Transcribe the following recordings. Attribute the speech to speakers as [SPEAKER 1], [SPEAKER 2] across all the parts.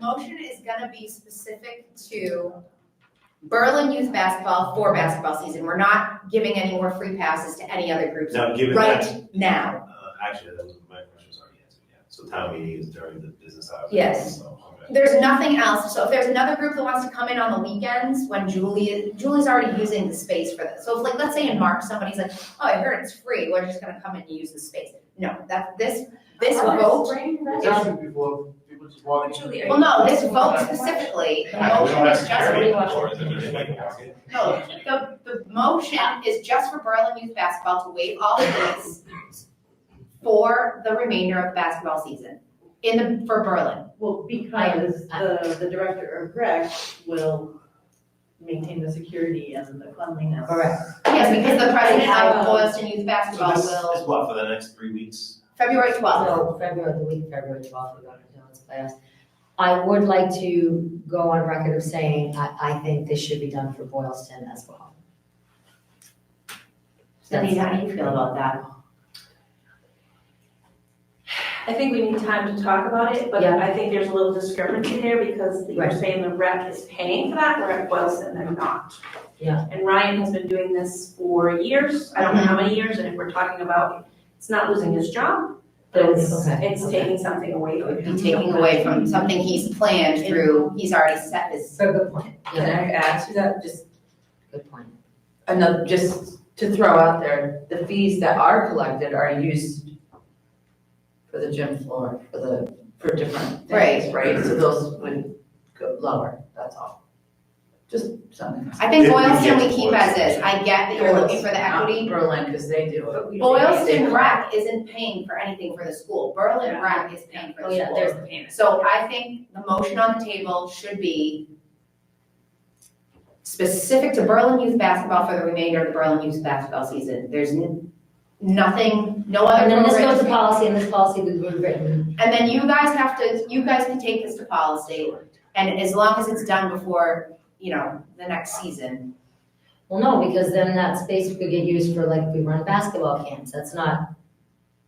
[SPEAKER 1] motion is gonna be specific to Berlin youth basketball for basketball season. We're not giving any more free passes to any other groups
[SPEAKER 2] Now, given that,
[SPEAKER 1] right now.
[SPEAKER 2] uh, actually, that was, my question was already answered, yeah. So town meeting is during the business hours.
[SPEAKER 1] Yes.
[SPEAKER 2] So, okay.
[SPEAKER 1] There's nothing else, so if there's another group that wants to come in on the weekends, when Julie, Julie's already using the space for this. So if like, let's say in March, somebody's like, oh, I heard it's free, we're just gonna come in and use the space. No, that, this, this vote,
[SPEAKER 3] It's happened before, people just walk in.
[SPEAKER 4] Julie, are
[SPEAKER 1] well, no, this vote specifically, the
[SPEAKER 2] Yeah, we
[SPEAKER 1] motion
[SPEAKER 2] don't
[SPEAKER 1] is
[SPEAKER 2] have
[SPEAKER 1] just for
[SPEAKER 2] to carry it
[SPEAKER 4] just-
[SPEAKER 2] forward, then there's like a market.
[SPEAKER 1] No, the, the motion is just for Berlin youth basketball to waive all fees for the remainder of the basketball season, in the, for Berlin.
[SPEAKER 5] Well, because the, the director of rec will maintain the security and the cleanliness.
[SPEAKER 1] Correct. Yes, because the president of Boylston Youth
[SPEAKER 2] So
[SPEAKER 1] Basketball
[SPEAKER 2] this is
[SPEAKER 1] will,
[SPEAKER 2] what, for the next three weeks?
[SPEAKER 1] February twelfth.
[SPEAKER 6] So February, the week of February twelfth, we're going to Dylan's class. I would like to go on record of saying, I, I think this should be done for Boylston as well.
[SPEAKER 1] how do you feel about that?
[SPEAKER 4] I think we need time to talk about it, but
[SPEAKER 6] Yeah.
[SPEAKER 4] I think there's a little discrepancy there because you're
[SPEAKER 6] Right.
[SPEAKER 4] saying the rec is paying for that, the rec Boylston, they're not.
[SPEAKER 6] Yeah. Mm-hmm.
[SPEAKER 4] And Ryan has been doing this for years, I don't know how many years, and if we're talking about, it's not losing his job, but it's,
[SPEAKER 6] Okay,
[SPEAKER 4] it's
[SPEAKER 6] okay.
[SPEAKER 4] taking something away from him.
[SPEAKER 1] Be taking away from something he's planned through, he's already set his,
[SPEAKER 6] So good point.
[SPEAKER 7] Can I add to that, just
[SPEAKER 6] Good point.
[SPEAKER 7] another, just to throw out there, the fees that are collected are used for the gym floor, for the, for different things, right? So those would go lower, that's all. Just something.
[SPEAKER 1] I think
[SPEAKER 2] If we get
[SPEAKER 1] Boylston we
[SPEAKER 2] to
[SPEAKER 1] keep as is, I get that you're looking for the equity,
[SPEAKER 7] Not Berlin, because they do it.
[SPEAKER 1] Boylston Rec isn't paying for anything for the school, Berlin Rec is paying for the
[SPEAKER 6] Oh,
[SPEAKER 1] school.
[SPEAKER 6] yeah, there's the payment.
[SPEAKER 1] So I think the motion on the table should be specific to Berlin youth basketball for the remainder of the Berlin youth basketball season. There's n- nothing, no other
[SPEAKER 6] And then this
[SPEAKER 1] program.
[SPEAKER 6] goes to policy, and this policy we would written.
[SPEAKER 1] And then you guys have to, you guys can take this to policy, and as long as it's done before, you know, the next season.
[SPEAKER 6] Well, no, because then that space could get used for like, we run basketball camps, that's not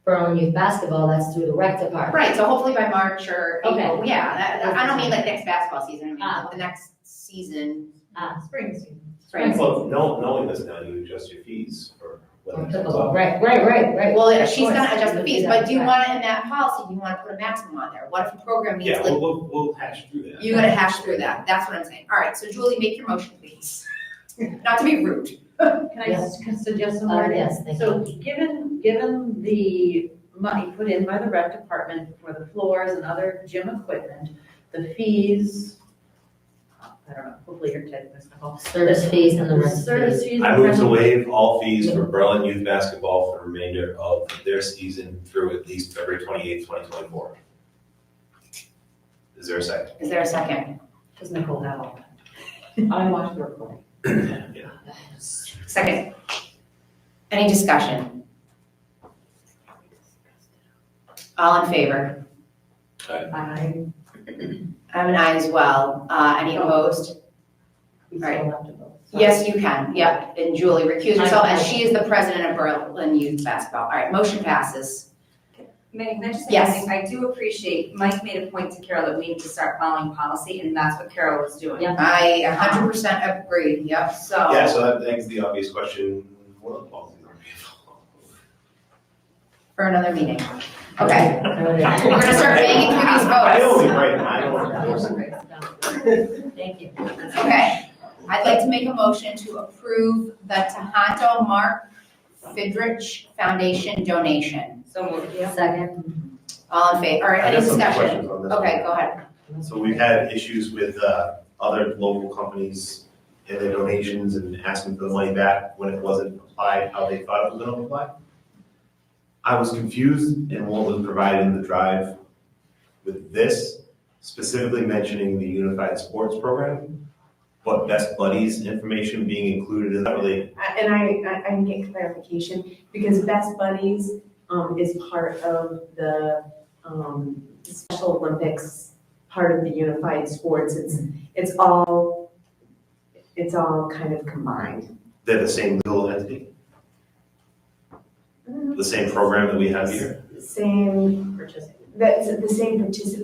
[SPEAKER 6] Berlin youth basketball, that's through the rec department.
[SPEAKER 1] Right, so hopefully by March or
[SPEAKER 6] Okay.
[SPEAKER 1] April, yeah, that- I don't mean like next basketball season, I
[SPEAKER 6] Ah,
[SPEAKER 1] mean the next season,
[SPEAKER 6] Ah,
[SPEAKER 7] Spring
[SPEAKER 1] spring.
[SPEAKER 2] Well, no, knowing this now, you adjust your fees for whether it comes up.
[SPEAKER 6] Right, right, right, right.
[SPEAKER 1] Well,
[SPEAKER 6] Of
[SPEAKER 1] she's gonna
[SPEAKER 6] course.
[SPEAKER 1] adjust the fees, but do you
[SPEAKER 6] Right.
[SPEAKER 1] want it in that policy, do you wanna put a maximum on there? What if the program needs
[SPEAKER 2] Yeah,
[SPEAKER 1] like,
[SPEAKER 2] we'll, we'll, we'll hash through that.
[SPEAKER 1] you gotta hash through that, that's what I'm saying. All right, so Julie, make your motion, please. Not to be rude.
[SPEAKER 5] Can I s- can suggest some
[SPEAKER 6] Uh,
[SPEAKER 5] wording?
[SPEAKER 6] yes, thank
[SPEAKER 5] So given, given the money put in by the rec department for the floors and other gym equipment, the fees, I don't know, hopefully you're taking this, Nicole.
[SPEAKER 6] Service fees and the
[SPEAKER 5] The
[SPEAKER 6] rest of the fees.
[SPEAKER 5] service fees.
[SPEAKER 2] I move to waive all fees for Berlin youth basketball for the remainder of their season through at least February twenty-eighth, twenty twenty-four. Is there a second?
[SPEAKER 1] Is there a second?
[SPEAKER 5] Does Nicole have all that?
[SPEAKER 7] I watched the recording.
[SPEAKER 2] Yeah.
[SPEAKER 1] Second. Any discussion? All in favor?
[SPEAKER 5] I,
[SPEAKER 1] I'm an aye as well, uh, any opposed?
[SPEAKER 5] we
[SPEAKER 1] All right.
[SPEAKER 5] still have to vote.
[SPEAKER 1] Yes, you can, yep, and Julie recused herself, as she is the president of Berlin Youth Basketball. All right, motion passes.
[SPEAKER 8] Megan, can I just say
[SPEAKER 1] Yes.
[SPEAKER 8] something? I do appreciate, Mike made a point to Carol that we need to start following policy, and that's what Carol was doing.
[SPEAKER 6] Yeah.
[SPEAKER 1] I a hundred percent agree, yep.
[SPEAKER 8] So.
[SPEAKER 2] Yeah, so that begs the obvious question, what other policies are we following?
[SPEAKER 1] for another meeting. Okay,
[SPEAKER 6] Alright.
[SPEAKER 1] we're gonna start banging through these
[SPEAKER 2] I
[SPEAKER 1] votes.
[SPEAKER 2] only, right, I only.
[SPEAKER 6] Thank you.
[SPEAKER 1] Okay, I'd like to make a motion to approve the Tohoto Mark Fidrich Foundation donation.
[SPEAKER 8] So moved.
[SPEAKER 6] Second.
[SPEAKER 1] All in favor, or
[SPEAKER 2] I
[SPEAKER 1] any
[SPEAKER 2] got some
[SPEAKER 1] discussion?
[SPEAKER 2] questions on this one.
[SPEAKER 1] Okay, go ahead.
[SPEAKER 2] So we've had issues with uh, other local companies and their donations and asking for the money back when it wasn't applied how they thought it was gonna apply. I was confused in what was provided in the drive with this, specifically mentioning the Unified Sports Program, but Best Buddies information being included is not really,
[SPEAKER 9] I- and I, I, I can get clarification, because Best Buddies, um, is part of the, um, Special Olympics, part of the Unified Sports, it's, it's all, it's all kind of combined.
[SPEAKER 2] they're the same legal entity, the same program that we have here.
[SPEAKER 9] Same,
[SPEAKER 5] Purchasing.
[SPEAKER 9] that's the same participant